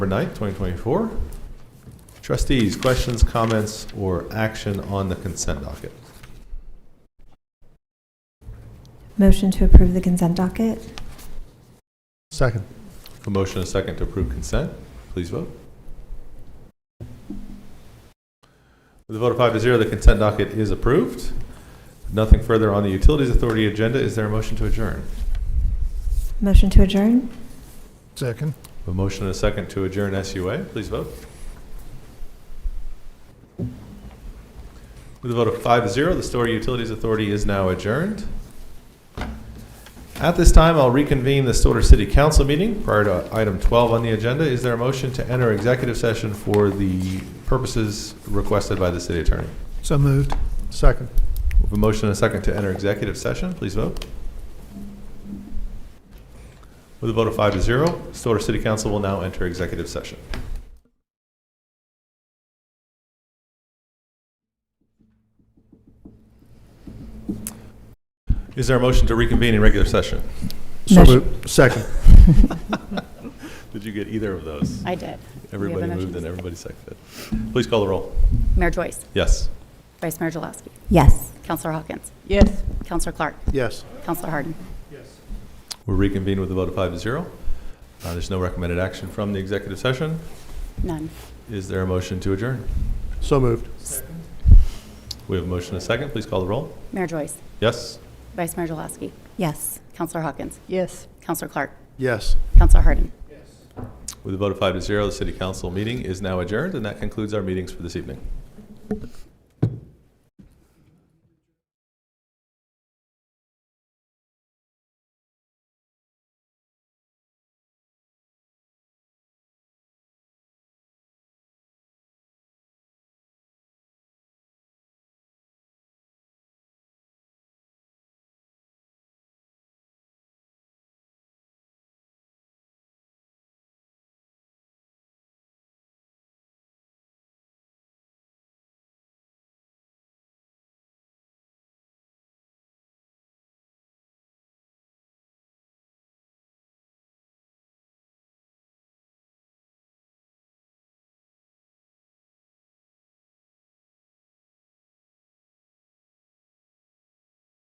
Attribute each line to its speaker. Speaker 1: November 9th, 2024. Trustees, questions, comments, or action on the consent docket?
Speaker 2: Motion to approve the consent docket?
Speaker 3: Second.
Speaker 1: A motion and a second to approve consent. Please vote. With a vote of five to zero, the consent docket is approved. Nothing further on the Utilities Authority agenda. Is there a motion to adjourn?
Speaker 2: Motion to adjourn?
Speaker 3: Second.
Speaker 1: A motion and a second to adjourn SUA. Please vote. With a vote of five to zero, the Story Utilities Authority is now adjourned. At this time, I'll reconvene the Stillwater City Council meeting prior to item 12 on the agenda. Is there a motion to enter executive session for the purposes requested by the city attorney?
Speaker 3: So moved. Second.
Speaker 1: We have a motion and a second to enter executive session. Please vote. With a vote of five to zero, Stillwater City Council will now enter executive session. Is there a motion to reconvene in regular session?
Speaker 3: So
Speaker 2: Motion-
Speaker 3: moved. Second.
Speaker 1: Did you get either of those?
Speaker 4: I did.
Speaker 1: Everybody
Speaker 4: motion
Speaker 1: moved
Speaker 4: to
Speaker 1: and
Speaker 4: second.
Speaker 1: everybody seconded. Please call the roll.
Speaker 4: Mayor Joyce,
Speaker 1: Yes.
Speaker 4: Vice Mayor Jaloski,
Speaker 2: Yes.
Speaker 4: Counselor Hawkins,
Speaker 5: Yes.
Speaker 4: Counselor Clark,
Speaker 3: Yes.
Speaker 4: Counselor Harden.
Speaker 1: We'll reconvene with a vote of five to zero. Uh, There's no recommended action from the executive session.
Speaker 4: None.
Speaker 1: Is there a motion to adjourn?
Speaker 3: So moved.
Speaker 1: We have a motion and a second. Please call the roll.
Speaker 4: Mayor Joyce,
Speaker 1: Yes?
Speaker 4: Vice Mayor Jaloski,
Speaker 2: Yes.
Speaker 4: Counselor Hawkins,
Speaker 5: Yes.
Speaker 4: Counselor Clark,
Speaker 3: Yes.
Speaker 4: Counselor Harden.
Speaker 1: With a vote of five to zero, the city council meeting is now adjourned, and that concludes our meetings for this evening.